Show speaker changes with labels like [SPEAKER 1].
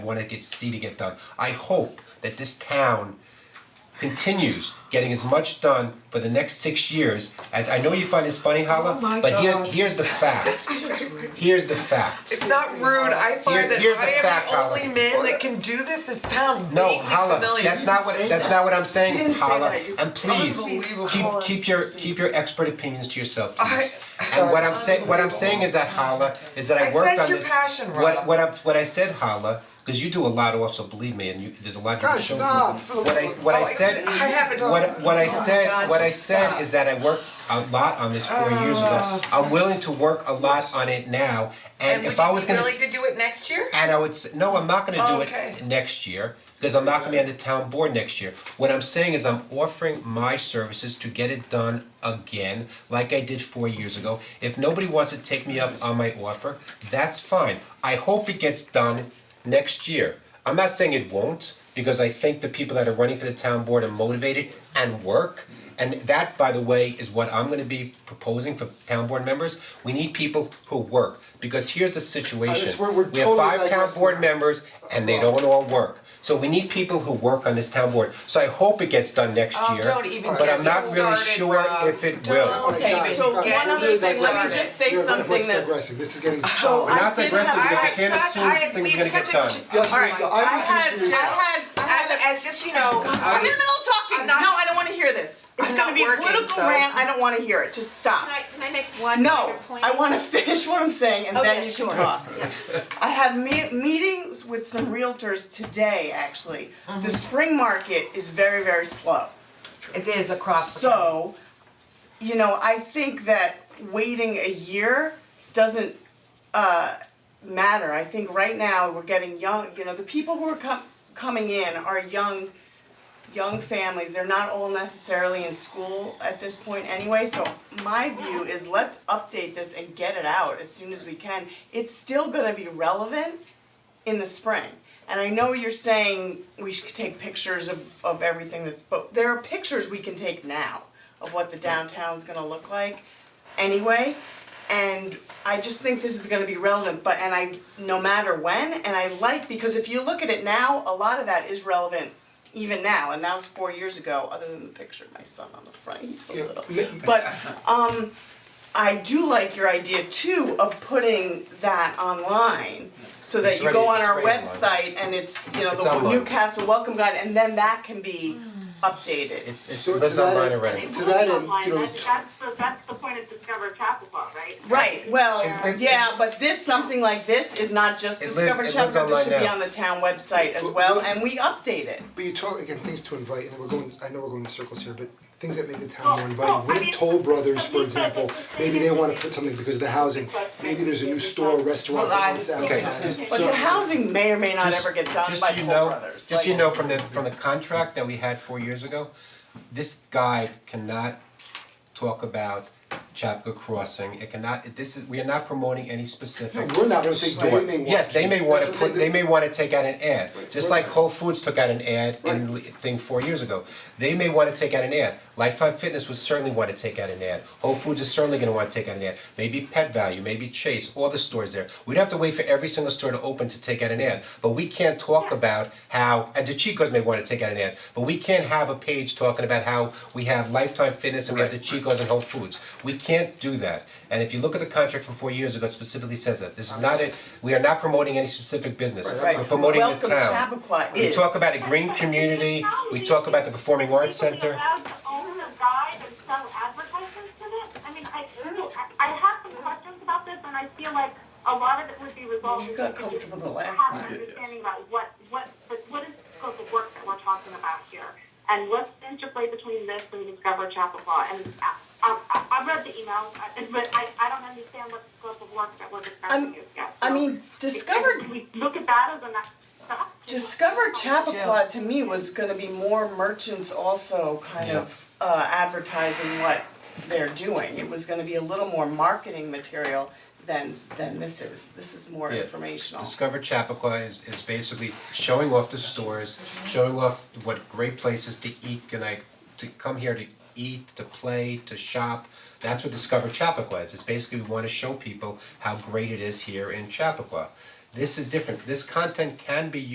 [SPEAKER 1] want to get, see to get done. I hope that this town continues getting as much done for the next six years as, I know you find this funny,
[SPEAKER 2] Oh my
[SPEAKER 1] Hala, but here,
[SPEAKER 2] God.
[SPEAKER 1] here's the fact. Here's the fact.
[SPEAKER 2] It's not rude, I
[SPEAKER 1] Here-
[SPEAKER 2] find that
[SPEAKER 1] here's the
[SPEAKER 2] I
[SPEAKER 1] fact,
[SPEAKER 2] am
[SPEAKER 1] Holly.
[SPEAKER 2] the only man that can do this, it sounds vaguely
[SPEAKER 1] No,
[SPEAKER 2] familiar.
[SPEAKER 1] Hala, that's not what, that's not what I'm saying,
[SPEAKER 2] didn't say
[SPEAKER 1] Hala,
[SPEAKER 2] that. You-
[SPEAKER 1] and please,
[SPEAKER 2] Unbelievable.
[SPEAKER 1] keep,
[SPEAKER 2] Hold on,
[SPEAKER 1] keep your,
[SPEAKER 2] Susie.
[SPEAKER 1] keep your expert opinions to yourself,
[SPEAKER 2] I-
[SPEAKER 1] please. And what I'm saying, what I'm saying is that, Hala, is that I
[SPEAKER 2] I
[SPEAKER 1] worked
[SPEAKER 2] sense
[SPEAKER 1] on
[SPEAKER 2] your
[SPEAKER 1] this,
[SPEAKER 2] passion,
[SPEAKER 1] what,
[SPEAKER 2] Rob.
[SPEAKER 1] what I'm, what I said, Hala, cause you do a lot also, believe me, and you, there's a lot you can
[SPEAKER 3] Guys,
[SPEAKER 1] show
[SPEAKER 3] stop.
[SPEAKER 1] people. What I, what I
[SPEAKER 2] Oh,
[SPEAKER 1] said,
[SPEAKER 2] I haven't-
[SPEAKER 1] what, what I
[SPEAKER 2] Oh,
[SPEAKER 1] said,
[SPEAKER 3] God,
[SPEAKER 1] what I
[SPEAKER 3] just
[SPEAKER 1] said
[SPEAKER 3] stop.
[SPEAKER 1] is that I worked a lot on this four years ago.
[SPEAKER 2] Oh.
[SPEAKER 1] I'm willing to work a lot on it now, and if I was gonna.
[SPEAKER 4] And would
[SPEAKER 1] s-
[SPEAKER 4] you be willing to do it next year?
[SPEAKER 1] And I would say, no, I'm not gonna do
[SPEAKER 2] Okay.
[SPEAKER 1] it next year, because I'm not gonna be on the town board next year. What I'm saying is I'm offering my services to get it done again, like I did four years ago. If nobody wants to take me up on my offer, that's fine. I hope it gets done next year. I'm not saying it won't, because I think the people that are running for the town board are motivated and work. And that, by the way, is what I'm gonna be proposing for town board members. We need people who work, because here's the situation.
[SPEAKER 3] It's- we're- we're
[SPEAKER 1] We have
[SPEAKER 3] totally
[SPEAKER 1] five town
[SPEAKER 3] digressing.
[SPEAKER 1] board members and they don't all work. So we need people who work on this town board. So I hope it gets done next
[SPEAKER 4] Oh,
[SPEAKER 1] year,
[SPEAKER 4] don't even
[SPEAKER 1] but I'm
[SPEAKER 4] get
[SPEAKER 1] not really
[SPEAKER 4] started,
[SPEAKER 1] sure
[SPEAKER 4] Rob.
[SPEAKER 1] if it will.
[SPEAKER 5] Okay,
[SPEAKER 3] Guys,
[SPEAKER 5] so one
[SPEAKER 3] we're
[SPEAKER 5] other
[SPEAKER 3] really
[SPEAKER 5] thing, let me
[SPEAKER 3] digressing.
[SPEAKER 5] just say
[SPEAKER 3] We're very
[SPEAKER 5] something
[SPEAKER 3] much
[SPEAKER 5] that's.
[SPEAKER 3] digressing. This is getting solid.
[SPEAKER 1] We're
[SPEAKER 5] I
[SPEAKER 1] not
[SPEAKER 5] did
[SPEAKER 1] digressing
[SPEAKER 5] have-
[SPEAKER 1] because
[SPEAKER 5] I
[SPEAKER 1] we
[SPEAKER 5] had
[SPEAKER 1] can't
[SPEAKER 4] such- I
[SPEAKER 1] assume
[SPEAKER 4] had-
[SPEAKER 1] things
[SPEAKER 4] we
[SPEAKER 1] are
[SPEAKER 4] have
[SPEAKER 1] gonna get
[SPEAKER 4] such a
[SPEAKER 1] done.
[SPEAKER 4] ch-
[SPEAKER 3] Yes,
[SPEAKER 5] All right,
[SPEAKER 3] Lisa,
[SPEAKER 5] I
[SPEAKER 3] I listen
[SPEAKER 5] had,
[SPEAKER 3] to you.
[SPEAKER 5] I had, I
[SPEAKER 4] As,
[SPEAKER 5] had.
[SPEAKER 4] as just, you know,
[SPEAKER 5] I'm in the middle of talking,
[SPEAKER 4] I'm
[SPEAKER 5] no,
[SPEAKER 4] not-
[SPEAKER 5] I don't wanna hear this. It's
[SPEAKER 4] I'm
[SPEAKER 5] gonna
[SPEAKER 4] not
[SPEAKER 5] be a
[SPEAKER 4] working,
[SPEAKER 5] political
[SPEAKER 4] so-
[SPEAKER 5] rant, I don't wanna hear it, just stop.
[SPEAKER 6] Can I, can I make one
[SPEAKER 5] No,
[SPEAKER 6] minor point?
[SPEAKER 5] I wanna finish what I'm saying and
[SPEAKER 6] Oh,
[SPEAKER 5] then
[SPEAKER 6] yeah,
[SPEAKER 5] you can
[SPEAKER 6] sure.
[SPEAKER 5] talk. I had me- meetings with some realtors today, actually.
[SPEAKER 6] Mm-hmm.
[SPEAKER 5] The spring market is very, very slow.
[SPEAKER 4] it is across the.
[SPEAKER 5] So, you know, I think that waiting a year doesn't uh, matter. I think right now we're getting young, you know, the people who are com- coming in are young, young families. They're not all necessarily in school at this point anyway. So my view is let's update this and get it out as soon as we can. It's still gonna be relevant in the spring. And I know you're saying we should take pictures of, of everything that's, but there are pictures we can take now of what the downtown's gonna look like anyway. And I just think this is gonna be relevant, but, and I, no matter when, and I like, because if you look at it now, a lot of that is relevant even now, and that was four years ago, other than the picture of my son on the front, he's so
[SPEAKER 3] Yeah.
[SPEAKER 5] little. But, um, I do like your idea too of putting that online so that
[SPEAKER 1] It's
[SPEAKER 5] you go on
[SPEAKER 1] already-
[SPEAKER 5] our
[SPEAKER 1] it's already
[SPEAKER 5] website and it's, you know,
[SPEAKER 1] It's
[SPEAKER 5] the
[SPEAKER 1] online.
[SPEAKER 5] Newcastle Welcome Guide and then that can be updated.
[SPEAKER 1] It's it's
[SPEAKER 3] So to
[SPEAKER 1] lives
[SPEAKER 3] that
[SPEAKER 1] online
[SPEAKER 3] end-
[SPEAKER 1] already.
[SPEAKER 3] To that end, you know,
[SPEAKER 7] That's, that's, so that's the point of Discover Chappaqua, right?
[SPEAKER 5] Right, well,
[SPEAKER 1] It- it-
[SPEAKER 5] yeah, but this, something like this is not just
[SPEAKER 1] It lives-
[SPEAKER 5] Discover
[SPEAKER 1] it lives
[SPEAKER 5] Chapel, this should
[SPEAKER 1] online
[SPEAKER 5] be
[SPEAKER 1] now.
[SPEAKER 5] on the town website as
[SPEAKER 3] Well,
[SPEAKER 5] well
[SPEAKER 3] well-
[SPEAKER 5] and we update it.
[SPEAKER 3] but you talk again, things to invite, and we're going, I know we're going in circles here, but things that make the town
[SPEAKER 7] Well,
[SPEAKER 3] more
[SPEAKER 7] well, Oh, I
[SPEAKER 3] inviting. Wouldn't
[SPEAKER 7] mean,
[SPEAKER 3] Toll Brothers, for
[SPEAKER 7] Lisa,
[SPEAKER 3] example,
[SPEAKER 7] it's the
[SPEAKER 3] maybe
[SPEAKER 7] same
[SPEAKER 3] they
[SPEAKER 7] as-
[SPEAKER 3] wanna put something because of the housing. Maybe there's a new store, or restaurant
[SPEAKER 4] Well, I
[SPEAKER 3] that wants to
[SPEAKER 4] was
[SPEAKER 1] thinking-
[SPEAKER 3] advertise.
[SPEAKER 5] But the housing may or may not ever get done by
[SPEAKER 1] Just, just so
[SPEAKER 5] Toll Brothers,
[SPEAKER 1] you
[SPEAKER 5] like-
[SPEAKER 1] know, just so you know, from the, from the contract that we had four years ago, this guide cannot talk about Chapco Crossing, it cannot, it- this is, we are not promoting any specific
[SPEAKER 3] No, we're not, but they
[SPEAKER 1] store.
[SPEAKER 3] may want
[SPEAKER 1] Yes, they may
[SPEAKER 3] to.
[SPEAKER 1] wanna
[SPEAKER 3] That's what I'm
[SPEAKER 1] put, they
[SPEAKER 3] saying.
[SPEAKER 1] may wanna take out an ad, just
[SPEAKER 3] we're
[SPEAKER 1] like Whole Foods took out an ad
[SPEAKER 3] Right.
[SPEAKER 1] in, li- thing four years ago. They may wanna take out an ad, Lifetime Fitness would certainly wanna take out an ad, Whole Foods is certainly gonna wanna take out an ad, maybe Pet Value, maybe Chase, all the stores there. We'd have to wait for every single store to open to take out an ad, but we can't talk about how, and the Chicos may wanna take out an ad, but we can't have a page talking about how we have Lifetime Fitness and we have the Chicos and Whole Foods. We can't do that, and if you look at the contract from four years ago, it specifically says that, this is not it, we are not promoting any specific business,
[SPEAKER 3] Right.
[SPEAKER 1] we're promoting the town.
[SPEAKER 5] Welcome Chappaqua
[SPEAKER 1] We
[SPEAKER 5] is.
[SPEAKER 1] talk about a green community, we talk about the Performing Arts Center.
[SPEAKER 7] People be allowed to own a guide and sell advertisements in it? I mean, I, I I have some questions about this, and I feel like a lot of it would be resolved.
[SPEAKER 5] You got
[SPEAKER 7] if we could
[SPEAKER 5] comfortable the last
[SPEAKER 7] have
[SPEAKER 5] time.
[SPEAKER 7] an understanding about what, what, but what is the scope of work that we're talking about here? And what's the interplay between this and Discover Chappaqua? And I, I, I read the email, I- but I, I don't understand what the scope of work that we're
[SPEAKER 5] I'm-
[SPEAKER 7] discussing is yet.
[SPEAKER 5] I
[SPEAKER 7] So
[SPEAKER 5] mean,
[SPEAKER 7] if-
[SPEAKER 5] Discover
[SPEAKER 7] if We look at that as a next step.
[SPEAKER 5] Discover Chappaqua to me was gonna be more merchants also kind of uh advertising what they're doing. It was gonna be a little more marketing material than than this is. This is more
[SPEAKER 1] Yeah.
[SPEAKER 5] informational.
[SPEAKER 1] Discover Chappaqua is is basically showing off the stores, showing off what great places to eat, and I, to come here to eat, to play, to shop. That's what Discover Chappaqua is, it's basically we wanna show people how great it is here in Chappaqua. This is different, this content can be